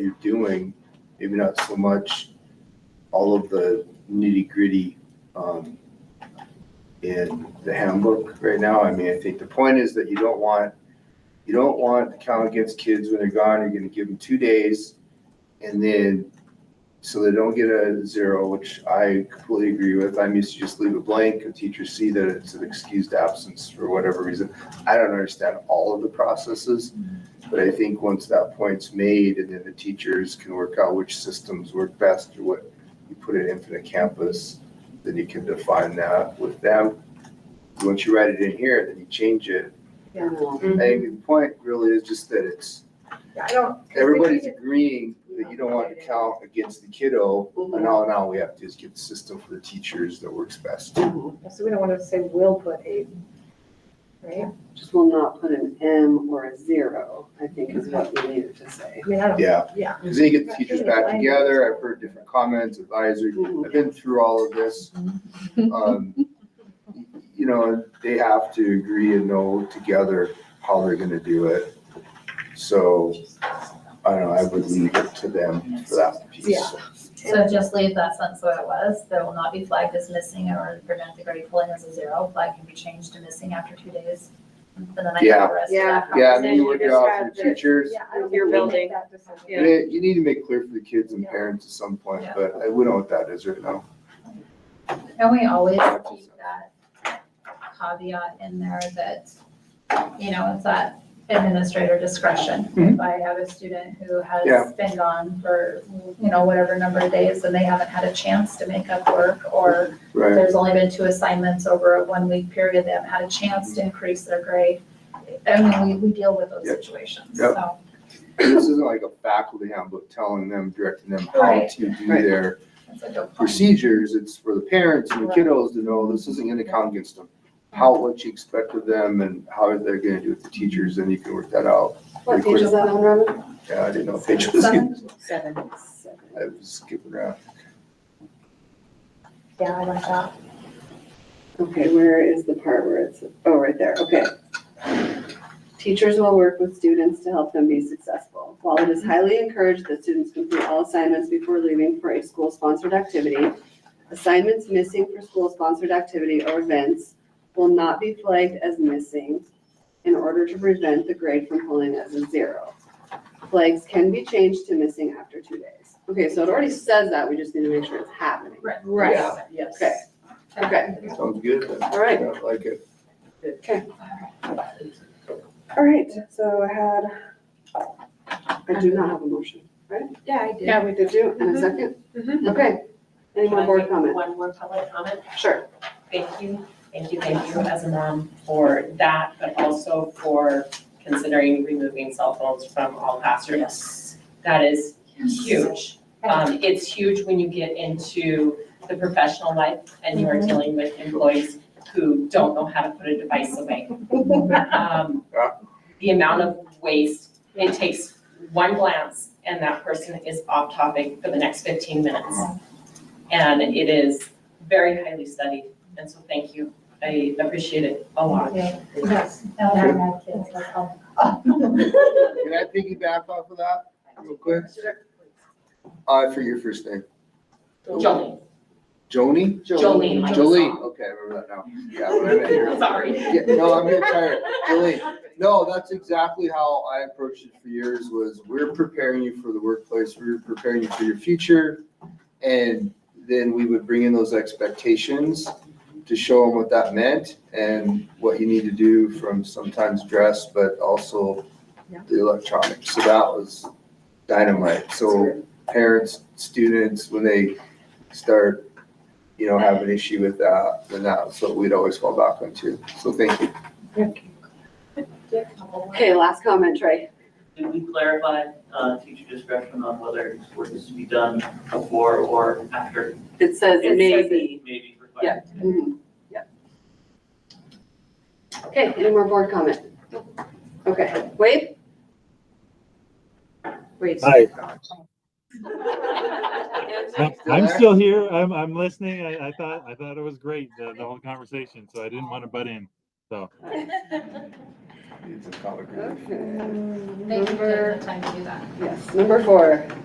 you're doing, maybe not so much all of the nitty gritty um, in the handbook right now. I mean, I think the point is that you don't want, you don't want to count against kids when they're gone. You're gonna give them two days and then, so they don't get a zero, which I completely agree with. I'm used to just leave it blank and teachers see that it's an excused absence for whatever reason. I don't understand all of the processes, but I think once that point's made and then the teachers can work out which systems work best or what you put in Infinite Campus, then you can define that with them. Once you write it in here, then you change it. I think the point really is just that it's, Yeah, I don't. 'cause they everybody's keep it- agreeing that you don't want to count against the kiddo. And all now we have to is get the system for the teachers that works best. So we don't want to say will put a, right? Just will not put an M or a zero, I think is what we needed to say. I mean, I don't, Yeah, yeah. because then you get the teachers back together. I've heard different comments, advisory. I've been through all of this. Um, You know, they have to agree and know together how they're gonna do it. So, I don't know, I would leave it to them for that piece. So just leave that sentence where it was, there will not be flagged as missing or prevent the grade pulling as a zero, flag can be changed to missing after two days. And then I Yeah. have the rest of that Yeah, I conversation. mean, you work it out for the teachers. Yeah, I don't Your think we make building. that decision. And it- you need to make clear for the kids and Yeah. parents at some point, Yeah. but I- we don't know what that is right now. Can we always keep that caveat in there that, you know, it's at administrator discretion? If I have a student who Mm-hmm. Yeah. has been gone for, you know, whatever number of days and they haven't had a chance to make up work or Right, There's only been two assignments over a one-week period. They haven't had a chance to increase their grade. I mean, we, we deal with those Yep. situations, Yep. so. this isn't like a faculty handbook telling them, directing them how Right. to do Right. their that's a good point. procedures, it's for the parents and the Right. kiddos to know this isn't gonna count against them. How, what you expect of them and how they're gonna do with the teachers, and you can work that out. What page is that on, Robin? Yeah, I didn't know if it was, I Seven? Seven. was skipping around. Yeah, I like that. Okay, where is the part where it's, oh, right there, okay. Teachers will work with students to help them be successful. While it is highly encouraged that students complete all assignments before leaving for a school-sponsored activity, assignments missing for school-sponsored activity or events will not be flagged as missing in order to prevent the grade from pulling as a zero. Flags can be changed to missing after two days. Okay, so it already says that, we just need to make sure it's happening. Yeah. yes. Okay, okay, Sounds good. then. All right. Yeah, I Like it. all right, so I had, I do not have a motion. Yeah, I did. Yeah, we did you, and a Mhm. 2nd Mhm. Okay. Any Can more I board make comment? One more public comment. Sure. Thank you, thank you, thank you as a mom for that, but also for considering removing cell phones from all classrooms. That is huge. Um, it's huge when you get into the professional life and you are dealing with employees who don't know how to put a device away. Um, Yeah. The amount of waste, it takes one glance and that person is off topic for the next fifteen minutes. And it is very highly studied, and so thank you. I appreciate it a lot. Yes. Now that I have kids, that's all. Can I piggyback off of that real quick? Uh, for your first name, Jolene, Joni? Jolene, I'm Jolene, okay, I remember that now. Yeah, what I meant here. sorry. Yeah, no, I'm getting tired. Really, no, that's exactly how I approached it for years was we're preparing you for the workplace, we're preparing you for your future. And then we would bring in those expectations to show them what that meant and what you need to do from sometimes dress, but also the electronics. So that was dynamite. So parents, students, when they start, you know, have an issue with that, then that's what we'd always fall back on too. So thank you. Okay, last comment, Trey. Did we clarify, uh, teacher discretion on whether work is to be done before or after? It says It says maybe. Maybe for Yeah. Mhm, yeah. Okay, any more board comment? Okay, Wade? Wade. Hi. I'm, Still I'm there? still here. I'm, I'm listening. I, I thought, I thought it was great, the, the whole conversation, so I didn't want to butt in. So. It's a common. Okay. Thank you for Number, taking the time to do that. yes, number four.